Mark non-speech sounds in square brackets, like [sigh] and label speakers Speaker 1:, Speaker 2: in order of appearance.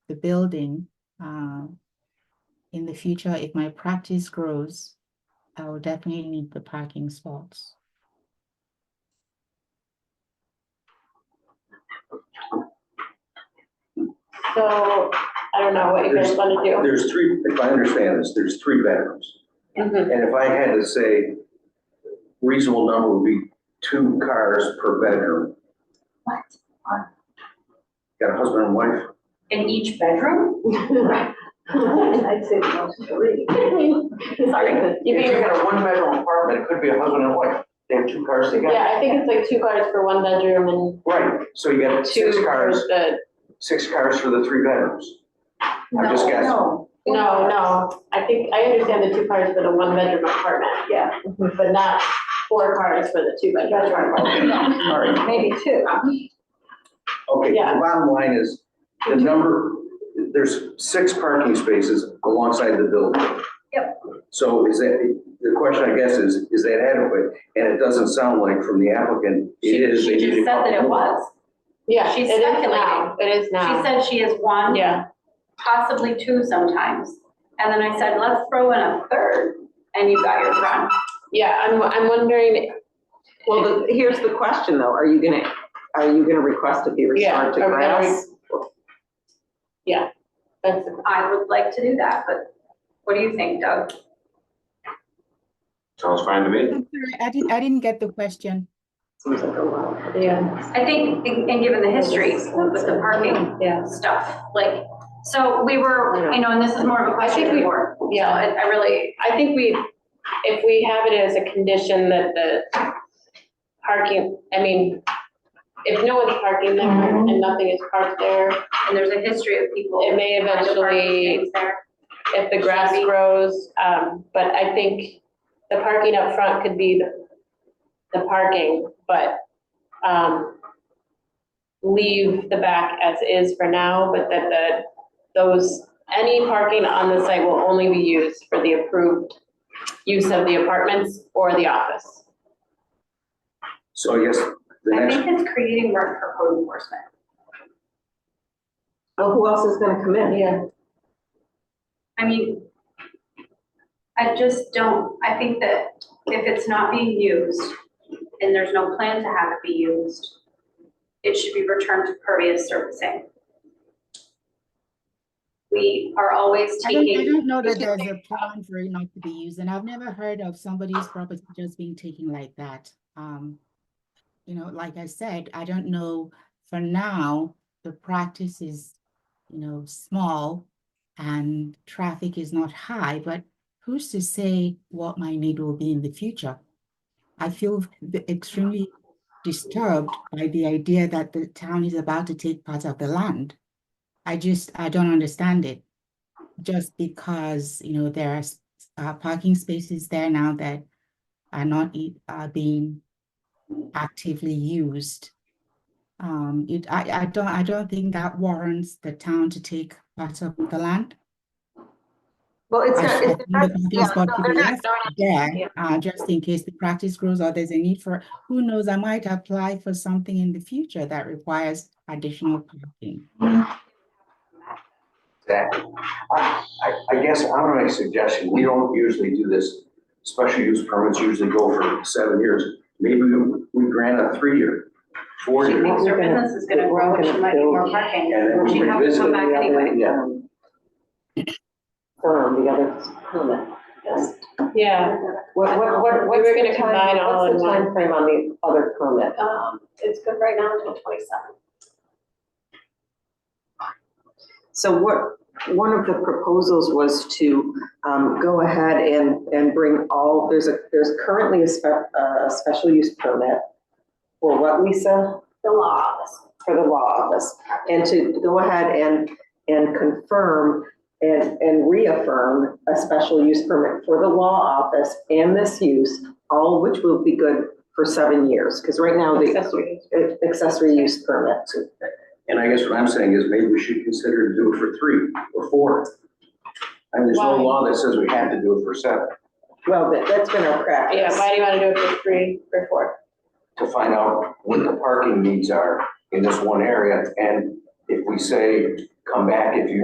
Speaker 1: the building. uh, In the future, if my practice grows, I will definitely need the parking spots.
Speaker 2: So, I don't know what you guys wanna do.
Speaker 3: There's three, if I understand this, there's three bedrooms.
Speaker 2: Mhm.
Speaker 3: And if I had to say reasonable number would be two cars per bedroom.
Speaker 4: What?
Speaker 3: Got a husband and wife?
Speaker 4: In each bedroom?
Speaker 2: Mm-hmm.
Speaker 4: I'd say most three.
Speaker 2: Sorry, you
Speaker 3: If
Speaker 2: think
Speaker 3: you
Speaker 2: you're-
Speaker 3: got a one-bedroom apartment, it could be a husband and wife. They have two cars together.
Speaker 2: yeah, I think it's like two cars for one bedroom
Speaker 3: Right, so you
Speaker 2: and
Speaker 3: got
Speaker 2: two
Speaker 3: six
Speaker 2: for
Speaker 3: cars,
Speaker 2: the,
Speaker 3: six cars for the three bedrooms. I'm just guessing.
Speaker 4: No,
Speaker 2: no, no. I think, I understand the two cars for the one bedroom apartment,
Speaker 4: Yeah,
Speaker 2: but not four cars for the two bedroom
Speaker 4: that's
Speaker 2: apartment.
Speaker 4: right.
Speaker 3: All right,
Speaker 4: Maybe two.
Speaker 3: Okay,
Speaker 2: Yeah.
Speaker 3: the bottom line is, the number, there's six parking spaces alongside the building. Yep. So is that, the question I guess is, is that adequate? And it doesn't sound like from the applicant, it is.
Speaker 5: She
Speaker 3: they need
Speaker 5: just
Speaker 3: to
Speaker 5: said that it
Speaker 3: couple.
Speaker 5: was.
Speaker 2: [laughs] Yeah, it
Speaker 5: She's
Speaker 2: is now,
Speaker 5: speculating.
Speaker 2: it is
Speaker 5: She
Speaker 2: now.
Speaker 5: said she has one,
Speaker 2: Yeah,
Speaker 5: possibly two sometimes. And then I said, let's throw in a third, and you got your run.
Speaker 2: yeah, I'm, I'm wondering,
Speaker 6: Well, the- here's the question though, are you gonna, are you gonna request it be
Speaker 2: yeah.
Speaker 6: restored to
Speaker 2: are we gonna re-
Speaker 6: grass?
Speaker 2: Yeah, that's, the-
Speaker 5: I would like to do that, but what do you think, Doug?
Speaker 7: Sounds fine to me.
Speaker 1: I'm sorry, I didn't, I didn't get the question.
Speaker 6: Seems like a lot.
Speaker 2: yeah,
Speaker 5: I think, and and given the history with the parking
Speaker 2: yeah.
Speaker 5: stuff, like, so we were, you know, and this is more of a
Speaker 2: I
Speaker 5: question
Speaker 2: think we-
Speaker 5: for.
Speaker 2: yeah.
Speaker 5: I, I really,
Speaker 2: I think we, if we have it as a condition that the parking, I mean, if no one's parking there and nothing is parked there,
Speaker 5: and there's a history of people.
Speaker 2: It may
Speaker 5: kind of parking
Speaker 2: eventually-
Speaker 5: things there.
Speaker 2: if the grass grows, um, but I think the parking up front could be the, the parking, but, um, leave the back as is for now, but that the, those, any parking on the site will only be used for the approved use of the apartments or the office.
Speaker 3: So I guess the
Speaker 5: I
Speaker 3: next,
Speaker 5: think it's creating work for code enforcement.
Speaker 6: Well, who else is gonna come in?
Speaker 2: Yeah.
Speaker 5: I mean, I just don't, I think that if it's not being used and there's no plan to have it be used, it should be returned to pervious surfacing. We are always
Speaker 1: I don't, I
Speaker 5: taking,
Speaker 1: don't know that there's a plan for it not to be used, and I've never heard of somebody's property just being taken like that. Um, you know, like I said, I don't know, for now, the practice is, you know, small and traffic is not high, but who's to say what my need will be in the future? I feel v- extremely disturbed by the idea that the town is about to take part of the land. I just, I don't understand it just because, you know, there are s- uh, parking spaces there now that are not, e- are being actively used. Um, it, I, I don't, I don't think that warrants the town to take part of the land.
Speaker 6: Well, it's
Speaker 1: I
Speaker 6: not,
Speaker 1: should-
Speaker 6: it's
Speaker 1: I
Speaker 6: not,
Speaker 1: think the
Speaker 6: yeah,
Speaker 1: parking spot
Speaker 6: no,
Speaker 1: to
Speaker 6: they're
Speaker 1: the
Speaker 6: not
Speaker 1: left
Speaker 6: going
Speaker 1: There, uh, just in case the practice grows or there's a need for, who knows, I might apply for something in the future that requires additional parking.
Speaker 3: that, I, I- I guess I'm gonna make a suggestion, we don't usually do this. Special use permits usually go for seven years, maybe we- we grant a three-year,
Speaker 5: she
Speaker 3: four-year.
Speaker 5: thinks her
Speaker 6: We're gonna-
Speaker 5: business is gonna grow and she might need more parking.
Speaker 3: And then we
Speaker 5: She'd have to
Speaker 3: revisit it.
Speaker 5: come back anyway.
Speaker 3: Yeah.
Speaker 6: um, Firm, the other permit. Yes.
Speaker 2: Yeah,
Speaker 6: What, what, what, what's
Speaker 2: were gonna
Speaker 6: the time,
Speaker 2: combine all
Speaker 6: what's the
Speaker 2: in one.
Speaker 6: timeframe on the other permit?
Speaker 2: um, it's good right now until twenty-seven.
Speaker 6: So what, one of the proposals was to um, go ahead and, and bring all, there's a, there's currently a spe, uh, a special use permit for what, Lisa?
Speaker 5: The law office.
Speaker 6: For the law office, and to go ahead and, and confirm and, and reaffirm a special use permit for the law office and this use, all of which will be good for seven years, because right now the
Speaker 2: Accessory.
Speaker 6: accessory use permit.
Speaker 3: And I guess what I'm saying is maybe we should consider to do it for three or four. And there's no
Speaker 2: Why?
Speaker 3: law that says we have to do it for seven,
Speaker 6: Well, that- that's been our practice.
Speaker 2: Yeah, why do you wanna do it for three or four?
Speaker 3: to find out what the parking needs are in this one area. And if we say, come back if you